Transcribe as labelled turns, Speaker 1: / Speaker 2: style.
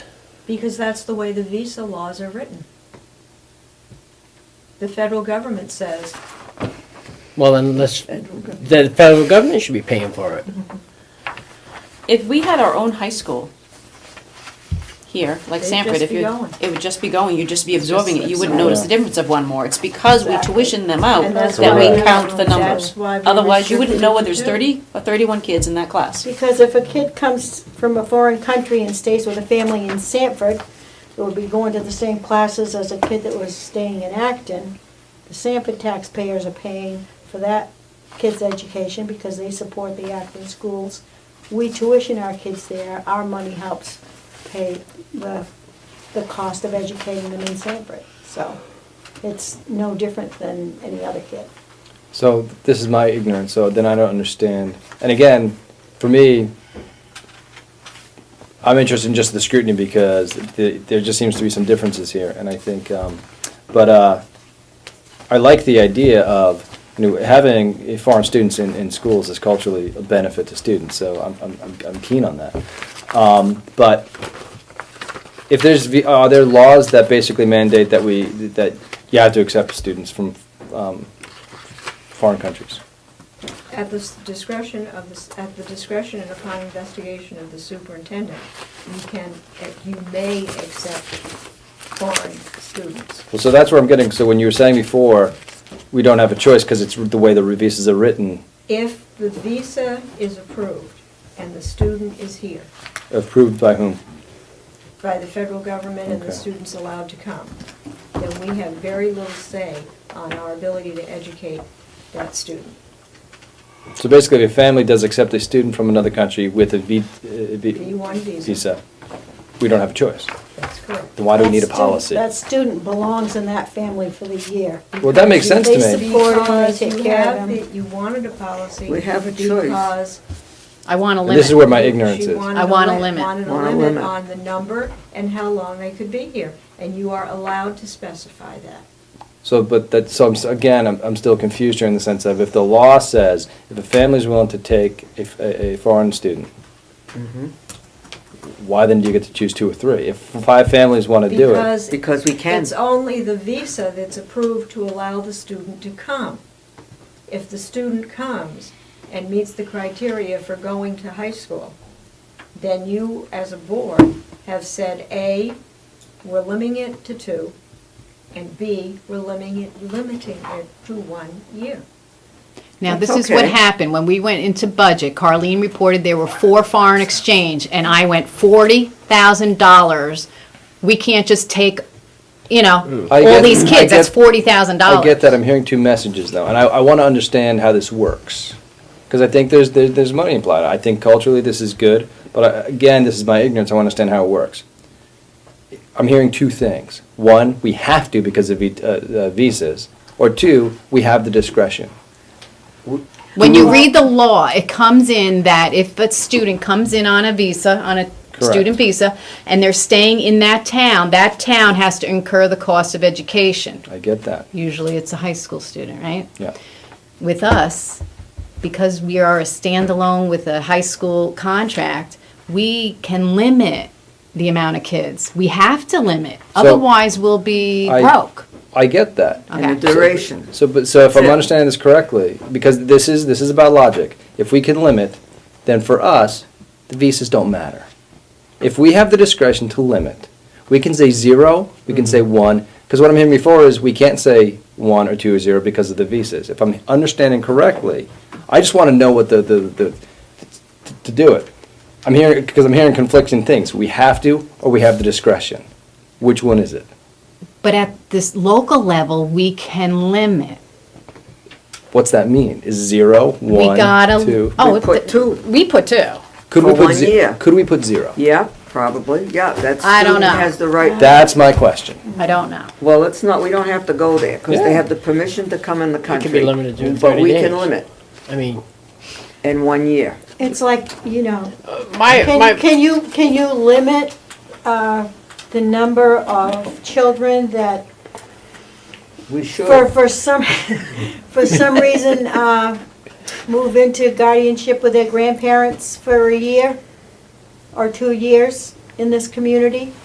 Speaker 1: because that's the way the visa laws are written. The federal government says,
Speaker 2: Well, then let's,
Speaker 1: federal government,
Speaker 2: the federal government should be paying for it.
Speaker 3: If we had our own high school here, like
Speaker 1: They'd
Speaker 3: Sanford,
Speaker 1: just
Speaker 3: if
Speaker 1: be
Speaker 3: you,
Speaker 1: going.
Speaker 3: it would just be going, you'd just be absorbing it, you wouldn't
Speaker 1: Yeah.
Speaker 3: notice the difference of one more. It's because we
Speaker 1: Exactly.
Speaker 3: tuition them out
Speaker 1: And that's
Speaker 3: that
Speaker 4: why
Speaker 3: we
Speaker 4: we-
Speaker 3: count the
Speaker 1: that's
Speaker 3: numbers.
Speaker 1: why we
Speaker 3: Otherwise, you wouldn't know whether
Speaker 1: restricted
Speaker 3: there's
Speaker 1: it to
Speaker 3: thirty or thirty-one kids in that class.
Speaker 4: Because if a kid comes from a foreign country and stays with a family in Sanford, it would be going to the same classes as a kid that was staying in Acton. The Sanford taxpayers are paying for that kid's education because they support the Acton schools. We tuition our kids there, our money helps pay the, the cost of educating them in Sanford. So it's no different than any other kid.
Speaker 5: So this is my ignorance. So then I don't understand. And again, for me, I'm interested in just the scrutiny because th there just seems to be some differences here, and I think. Um, but uh, I like the idea of you know, having uh, foreign students in, in schools is culturally a benefit to students. So I'm I'm, I'm, I'm keen on that. Um, but if there's v- are there laws that basically mandate that we that you have to accept students from um, foreign countries.
Speaker 1: At the s- discretion of the, s- at the discretion and upon investigation of the superintendent, you can, eh, you may accept foreign students.
Speaker 5: Well, so that's where I'm getting, so when you were saying before, we don't have a choice because it's the way the visas are written,
Speaker 1: If the visa is approved and the student is here
Speaker 5: approved by whom?
Speaker 1: by the federal government and the
Speaker 5: Okay.
Speaker 1: student's allowed to come, then we have very little say on our ability to educate that student.
Speaker 5: So basically, if a family does accept a student from another country with a V, uh, v-
Speaker 1: B-1 visa.
Speaker 5: visa, we don't have a choice.
Speaker 1: That's correct.
Speaker 5: Then why do we
Speaker 4: That
Speaker 5: need a
Speaker 4: student-
Speaker 5: policy?
Speaker 4: That student belongs in that family for the year.
Speaker 5: Well, that makes sense to
Speaker 4: They
Speaker 5: me.
Speaker 4: support him, they
Speaker 1: Because
Speaker 4: take
Speaker 1: you
Speaker 4: care of
Speaker 1: have,
Speaker 4: him.
Speaker 1: the- you wanted a policy.
Speaker 6: We have a choice.
Speaker 1: Because
Speaker 7: I want a
Speaker 5: And this is where my
Speaker 7: limit.
Speaker 5: ignorance
Speaker 1: She
Speaker 5: is.
Speaker 1: wanted
Speaker 7: I want a
Speaker 1: li-
Speaker 7: limit.
Speaker 1: Wanted a
Speaker 6: Want a
Speaker 1: limit
Speaker 6: limit.
Speaker 1: on the number and how long they could be here, and you are allowed to specify that.
Speaker 5: So, but that, so I'm, s- again, I'm, I'm still confused here in the sense of if the law says, if a family's willing to take a, f- a- a foreign student, why then do you get to choose two or three? If five families want to do it,
Speaker 1: Because
Speaker 6: Because we can.
Speaker 1: it's only the visa that's approved to allow the student to come. If the student comes and meets the criteria for going to high school, then you, as a board, have said, A, we're limiting it to two, and B, we're limiting it, limiting it to one year.
Speaker 7: Now, this
Speaker 6: That's
Speaker 7: is what
Speaker 6: okay.
Speaker 7: happened, when we went into budget, Carleen reported there were four foreign exchange, and I went forty thousand dollars. We can't just take, you know,
Speaker 5: Mm. I
Speaker 7: all
Speaker 5: get-
Speaker 7: these
Speaker 5: I
Speaker 7: kids, that's
Speaker 5: get-
Speaker 7: forty thousand dollars.
Speaker 5: I get that, I'm hearing two messages though, and I, I want to understand how this works. Because I think there's, there- there's money implied. I think culturally this is good, but I- again, this is my ignorance, I want to understand how it works. I'm hearing two things. One, we have to because of vi- uh, uh, visas, or two, we have the discretion.
Speaker 7: When you read the law, it comes in that if a student comes in on a visa, on a
Speaker 5: Correct.
Speaker 7: student visa, and they're staying in that town, that town has to incur the cost of education.
Speaker 5: I get that,
Speaker 7: Usually it's a high school student, right?
Speaker 5: yeah.
Speaker 7: With us, because we are a standalone with a high school contract, we can limit the amount of kids. We have to limit, otherwise we'll be
Speaker 5: I-
Speaker 7: broke.
Speaker 5: I get that.
Speaker 7: Okay.
Speaker 6: And the duration.
Speaker 5: So, but, so if I'm
Speaker 6: So-
Speaker 5: understanding this correctly, because this is, this is about logic, if we can limit, then for us, the visas don't matter. If we have the discretion to limit, we can say zero, we
Speaker 6: Mm-hmm.
Speaker 5: can say one, because what I'm hearing before is we can't say one or two or zero because of the visas. If I'm understanding correctly, I just want to know what the, the, the, t- to do it. I'm hearing, because I'm hearing conflicting things. We have to, or we have the discretion. Which one is it?
Speaker 7: But at this local level, we can limit.
Speaker 5: What's that mean? Is zero,
Speaker 7: We
Speaker 5: one,
Speaker 7: gotta,
Speaker 5: two?
Speaker 7: oh,
Speaker 6: We
Speaker 7: it-
Speaker 6: put two.
Speaker 7: We put two.
Speaker 5: Could
Speaker 6: For
Speaker 5: we put
Speaker 6: one
Speaker 5: ze-
Speaker 6: year.
Speaker 5: Could we put zero?
Speaker 6: Yeah, probably, yeah, that's.
Speaker 7: I don't
Speaker 6: student
Speaker 7: know.
Speaker 6: Has the right.
Speaker 5: That's my question.
Speaker 7: I don't know.
Speaker 6: Well, it's not, we don't have to go there, because they
Speaker 5: Yeah.
Speaker 6: have the permission to come in the country.
Speaker 2: limited to 30
Speaker 6: But we
Speaker 2: days.
Speaker 6: can limit
Speaker 2: I mean,
Speaker 6: in one year.
Speaker 4: It's like, you know,
Speaker 8: My,
Speaker 4: can,
Speaker 8: my,
Speaker 4: can you, can you limit, uh, the number of children that,
Speaker 6: We
Speaker 4: for,
Speaker 6: should.
Speaker 4: for some, for some reason, uh, move into guardianship with their grandparents for a year or two years in this community?